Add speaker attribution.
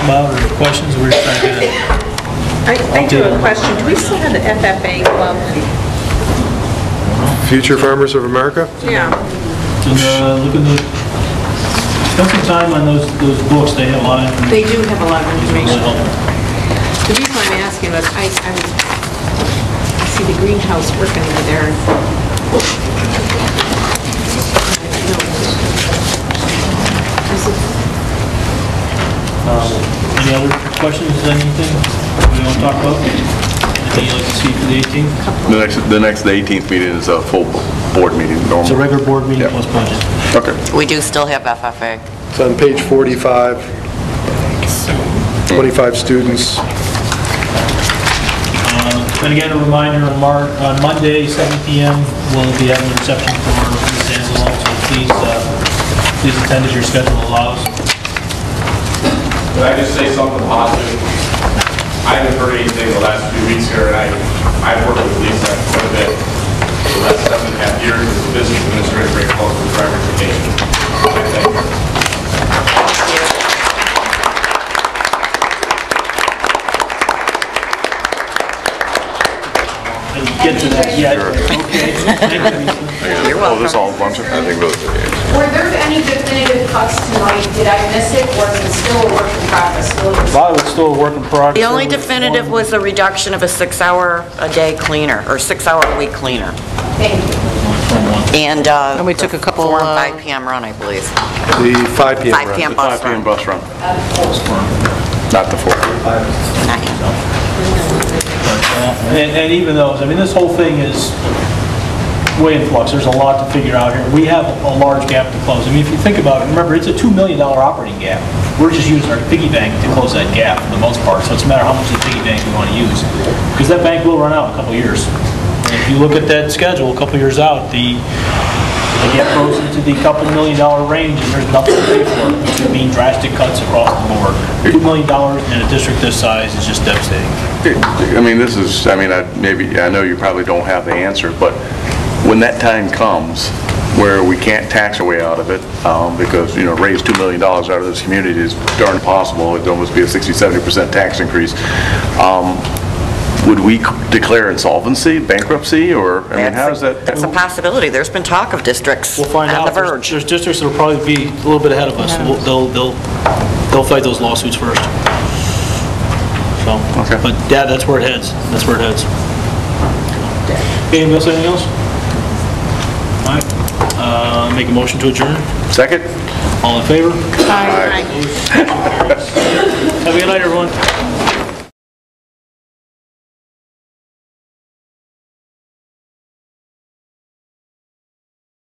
Speaker 1: Bob, or questions, we're just trying to get
Speaker 2: I I do have a question. Do we still have the FFA club?
Speaker 3: Future Farmers of America?
Speaker 1: a,
Speaker 2: Yeah.
Speaker 1: and, uh, look at the, spend some time on those, those books, they have a lot of information.
Speaker 2: They do have a lot of
Speaker 1: Really
Speaker 2: information.
Speaker 1: helpful.
Speaker 2: The reason I'm asking was I, I was- I see the greenhouse working over there. Is it-
Speaker 1: Um, Any other questions, anything we want to talk about? Anything you'd like to see for the 18th?
Speaker 4: The next, the next, the 18th meeting is a full board meeting, normal.
Speaker 1: It's a regular board meeting
Speaker 4: Yeah.
Speaker 1: plus budget.
Speaker 4: Okay.
Speaker 5: We do still have FFA.
Speaker 3: It's on page 45, 25 students.
Speaker 1: Uh, And again, a reminder, on Mar, on Monday, 7 PM, we'll be having a reception for Ms. Anzalone, so please, uh, please attend as your schedule allows.
Speaker 6: Can I just say something positive? I haven't heard anything the last few weeks here, and I, I've worked with Lisa quite a bit for the last seven and a half years as a business administrator, very close with driver education. I thank her.
Speaker 1: And get to that, yeah. Okay. Thank you, Lisa.
Speaker 4: You're welcome. Oh, this all a bunch of, I think those,
Speaker 7: Were there any definitive cuts tonight? Did I miss it, or is it still a work in progress? Still a-
Speaker 1: Bob, it's still a work in progress.
Speaker 5: The only definitive was the reduction of a six-hour-a-day cleaner, or six-hour-a-week cleaner.
Speaker 7: Thank you.
Speaker 5: And... And
Speaker 8: we took a couple,
Speaker 5: Four and
Speaker 8: uh,
Speaker 5: 5 PM run, I believe.
Speaker 3: The 5 PM
Speaker 5: 5
Speaker 3: round.
Speaker 5: PM
Speaker 4: the 5
Speaker 5: bus
Speaker 4: PM
Speaker 5: run.
Speaker 4: bus run. Not the 4.
Speaker 5: Not yet.
Speaker 1: And, and even those, I mean, this whole thing is way in flux, there's a lot to figure out here. We have a large gap to close. I mean, if you think about it, remember, it's a $2 million operating gap. We're just using our piggy bank to close that gap for the most part, so it's a matter of how much of the piggy bank we want to use. Because that bank will run out in a couple of years. And If you look at that schedule, a couple of years out, the, the gap goes into the couple million dollar range, and there's nothing to pay for, which would mean drastic cuts across the board. $2 million in a district this size is just devastating.
Speaker 4: I mean, this is, I mean, I, maybe, I know you probably don't have the answer, but when that time comes where we can't tax our way out of it, um, because, you know, raise $2 million out of this community is darn impossible, it'd almost be a 60, 70% tax increase, um, would we declare insolvency, bankruptcy, or, I mean, how does that?
Speaker 5: That's a possibility. There's been talk of districts
Speaker 1: We'll find
Speaker 5: on
Speaker 1: out.
Speaker 5: the
Speaker 1: There's-
Speaker 5: verge.
Speaker 1: There's districts that'll probably be a little bit ahead of us. We'll- They'll, they'll, they'll fight those lawsuits first. So,
Speaker 4: Okay.
Speaker 1: but yeah, that's where it heads. That's where it heads. Anything else, anything else? All right, Uh, make a motion to adjourn.
Speaker 4: Second?
Speaker 1: All in favor?
Speaker 2: Aye.
Speaker 1: Opposed?